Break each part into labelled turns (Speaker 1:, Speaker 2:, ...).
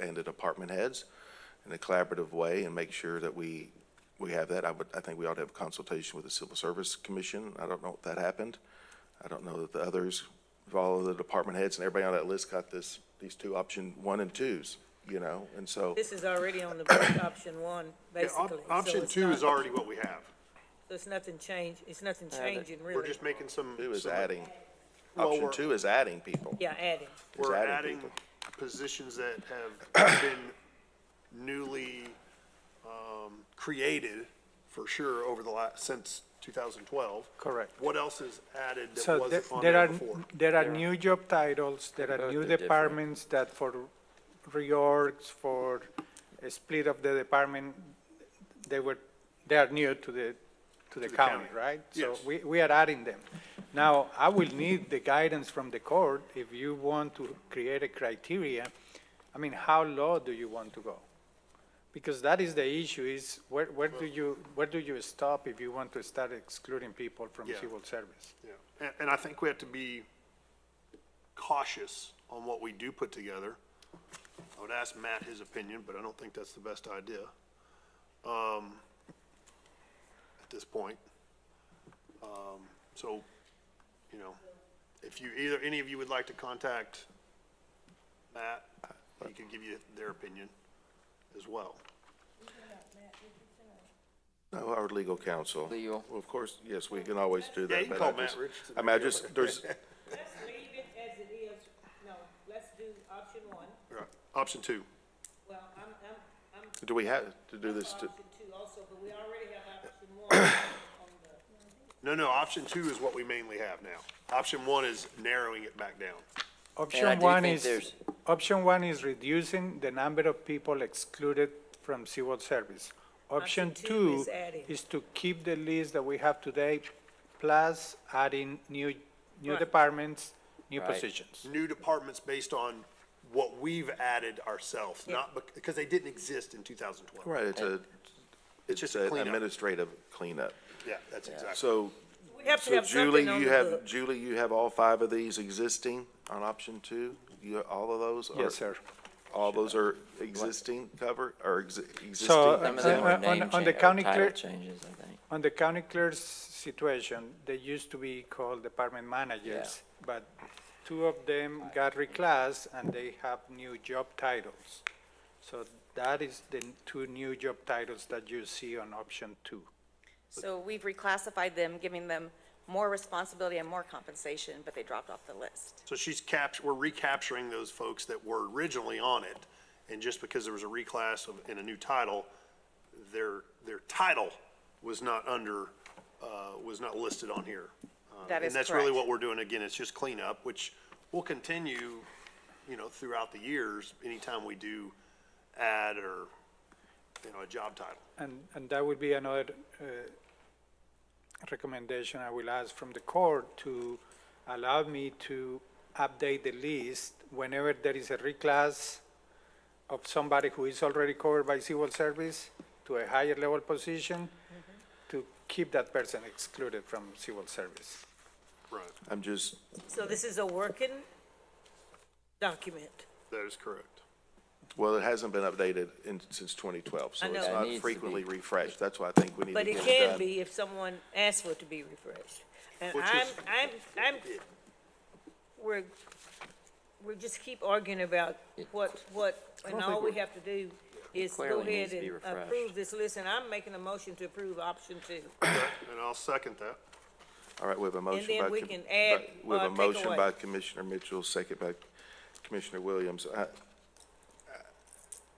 Speaker 1: and the department heads in a collaborative way and make sure that we, we have that. I would, I think we ought to have a consultation with the Civil Service Commission. I don't know if that happened. I don't know that the others, if all of the department heads and everybody on that list got this, these two option one and twos, you know, and so.
Speaker 2: This is already on the book, option one,
Speaker 3: Yeah, op-
Speaker 2: basically. so
Speaker 3: Option
Speaker 2: it's
Speaker 3: two
Speaker 2: not-
Speaker 3: is already what we have.
Speaker 2: So it's nothing change, it's nothing
Speaker 4: they-
Speaker 2: changing
Speaker 3: We're
Speaker 2: really.
Speaker 3: just making some.
Speaker 1: Two is
Speaker 3: some-
Speaker 1: adding,
Speaker 3: Well,
Speaker 1: option
Speaker 3: we're-
Speaker 1: two is adding people.
Speaker 2: Yeah, adding.
Speaker 1: It's
Speaker 3: We're
Speaker 1: adding
Speaker 3: adding
Speaker 1: people.
Speaker 3: positions that have been newly, um, created for sure over the last, since 2012.
Speaker 5: Correct.
Speaker 3: What else is added that
Speaker 5: So
Speaker 3: wasn't
Speaker 5: the-
Speaker 3: on
Speaker 5: there
Speaker 3: there
Speaker 5: are,
Speaker 3: before?
Speaker 5: there are new job titles, there
Speaker 4: Both
Speaker 5: are new
Speaker 4: are different.
Speaker 5: departments that for reorgs, for a split of the department, they were, they are new to the, to the
Speaker 3: the
Speaker 5: county,
Speaker 3: county.
Speaker 5: right? So
Speaker 3: Yes.
Speaker 5: we, we are adding them. Now, I will need the guidance from the court if you want to create a criteria. I mean, how low do you want to go? Because that is the issue, is where, where do you, where do you stop if you want to start excluding people from
Speaker 3: Yeah.
Speaker 5: civil service?
Speaker 3: Yeah. And, and I think we have to be cautious on what we do put together. I would ask Matt his opinion, but I don't think that's the best idea, um, at this point. Um, so, you know, if you, either, any of you would like to contact Matt, he could give you their opinion as well.
Speaker 1: No, our legal counsel.
Speaker 4: Legal.
Speaker 1: Well, of course, yes, we can always do that.
Speaker 3: Yeah, you
Speaker 1: but
Speaker 3: can call
Speaker 1: I just-
Speaker 3: Matt Richardson.
Speaker 1: I mean, I just, there's,
Speaker 2: Let's leave it as it is, no, let's do option one.
Speaker 3: Right. Option two.
Speaker 2: Well, I'm, I'm, I'm
Speaker 1: do we have to do this
Speaker 2: for
Speaker 1: to,
Speaker 2: option two also, but we already have option one on the.
Speaker 3: No, no, option two is what we mainly have now. Option one is narrowing it back down.
Speaker 4: I
Speaker 5: Option
Speaker 4: do
Speaker 5: one
Speaker 4: think
Speaker 5: is,
Speaker 4: there's-
Speaker 5: option one is reducing the number of people excluded from civil service. Option
Speaker 2: two
Speaker 5: two
Speaker 2: is adding.
Speaker 5: is to keep the list that we have today, plus adding new, new
Speaker 2: Right.
Speaker 5: departments, new
Speaker 4: Right.
Speaker 5: positions.
Speaker 3: new departments based on what we've added ourselves, not, bec- because they didn't exist in 2012.
Speaker 1: right, it's a, it's
Speaker 3: just a
Speaker 1: an
Speaker 3: cleanup.
Speaker 1: administrative cleanup.
Speaker 3: Yeah, that's exactly.
Speaker 1: So,
Speaker 2: We have to
Speaker 1: so
Speaker 2: have
Speaker 1: Julie,
Speaker 2: something on
Speaker 1: you
Speaker 2: the
Speaker 1: have,
Speaker 2: book.
Speaker 1: Julie, you have all five of these existing on option two? You, all of those? are-
Speaker 5: Yes, sir.
Speaker 1: All those are existing cover, or exi- existing?
Speaker 5: So,
Speaker 4: Some of them
Speaker 5: Uh,
Speaker 4: were
Speaker 5: on-
Speaker 4: name
Speaker 5: on the
Speaker 4: change, or
Speaker 5: county
Speaker 4: title
Speaker 5: clerk-
Speaker 4: changes, I think.
Speaker 5: On the county clerk's situation, they used to be called department managers, but two of them got reclassed and they have new job titles. So that is the two new job titles that you see on option two.
Speaker 6: So we've reclassified them, giving them more responsibility and more compensation, but they dropped off the list.
Speaker 3: So she's capt, we're recapturing those folks that were originally on it, and just because there was a reclass of, and a new title, their, their title was not under, uh, was not listed on here. Uh,
Speaker 6: That is
Speaker 3: And that's really
Speaker 6: correct.
Speaker 3: what we're doing. Again, it's just cleanup, which will continue, you know, throughout the years, anytime we do add or, you know, a job title.
Speaker 5: And, and that would be another uh, recommendation I will ask from the court to allow me to update the list whenever there is a reclass of somebody who is already covered by civil service to a higher level position,
Speaker 2: Mm-hmm.
Speaker 5: to keep that person excluded from civil service.
Speaker 3: Right.
Speaker 1: I'm just,
Speaker 2: So this is a working document.
Speaker 3: That is correct.
Speaker 1: well, it hasn't been updated in, since twenty twelve, so
Speaker 2: I
Speaker 1: it's
Speaker 2: know. It
Speaker 1: not
Speaker 4: needs to be.
Speaker 1: frequently refreshed. That's why I think we need to
Speaker 2: But
Speaker 1: get it
Speaker 2: it
Speaker 1: done.
Speaker 2: can be if someone asks for it to be refreshed. And
Speaker 3: Which
Speaker 2: I'm,
Speaker 3: is-
Speaker 2: I'm, I'm, we're, we just keep arguing about what, what, and all we have to do is go
Speaker 4: Clearly
Speaker 2: ahead
Speaker 4: needs to be
Speaker 2: and
Speaker 4: refreshed.
Speaker 2: approve this list, and I'm making a motion to approve option two.
Speaker 3: And I'll second that.
Speaker 1: All right, we have a motion by.
Speaker 2: then we
Speaker 1: Com-
Speaker 2: can add
Speaker 1: by- We have
Speaker 2: or
Speaker 1: a
Speaker 2: take
Speaker 1: motion
Speaker 2: away.
Speaker 1: by Commissioner Mitchell, second by Commissioner Williams. I-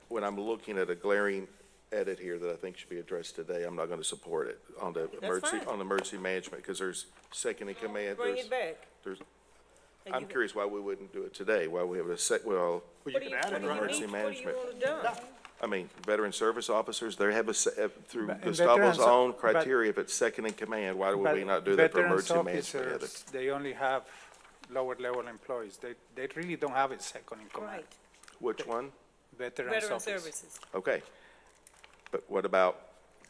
Speaker 1: When I'm looking at a glaring edit here that I think should be addressed today, I'm not going to support it on the emergency,
Speaker 2: fine.
Speaker 1: on emergency management, because there's second in command.
Speaker 2: Bring
Speaker 1: there's-
Speaker 2: it back.
Speaker 1: There's,
Speaker 2: And
Speaker 1: I'm
Speaker 2: you-
Speaker 1: curious why we wouldn't do it today, why we have a sec, well,
Speaker 3: Well, you
Speaker 2: What do
Speaker 3: can
Speaker 2: you,
Speaker 3: add
Speaker 2: what
Speaker 3: it,
Speaker 2: do you
Speaker 3: right?
Speaker 1: emergency
Speaker 2: need, what do you
Speaker 1: management.
Speaker 2: want done?
Speaker 1: I mean, veteran service officers, they have a, se- uh, through
Speaker 5: But- and
Speaker 1: Gustavo's
Speaker 5: veterans-
Speaker 1: own
Speaker 5: but-
Speaker 1: criteria, if it's second in command, why would we
Speaker 5: But
Speaker 1: not do that for
Speaker 5: veterans
Speaker 1: emergency management?
Speaker 5: officers,
Speaker 1: edit?
Speaker 5: They only have lower level employees. They, they really don't have a second in command.
Speaker 2: Right,
Speaker 1: Which one?
Speaker 5: Veterans
Speaker 2: veteran
Speaker 5: officers.
Speaker 2: services.
Speaker 1: Okay. But what about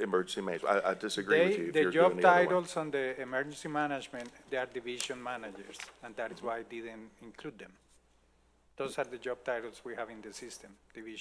Speaker 1: emergency management? I, I disagree with
Speaker 5: They,
Speaker 1: you if
Speaker 5: the
Speaker 1: you're doing
Speaker 5: job
Speaker 1: the other one.
Speaker 5: titles on the emergency management, they are division managers, and that is why I didn't include them. Those are the job titles we have in the system, division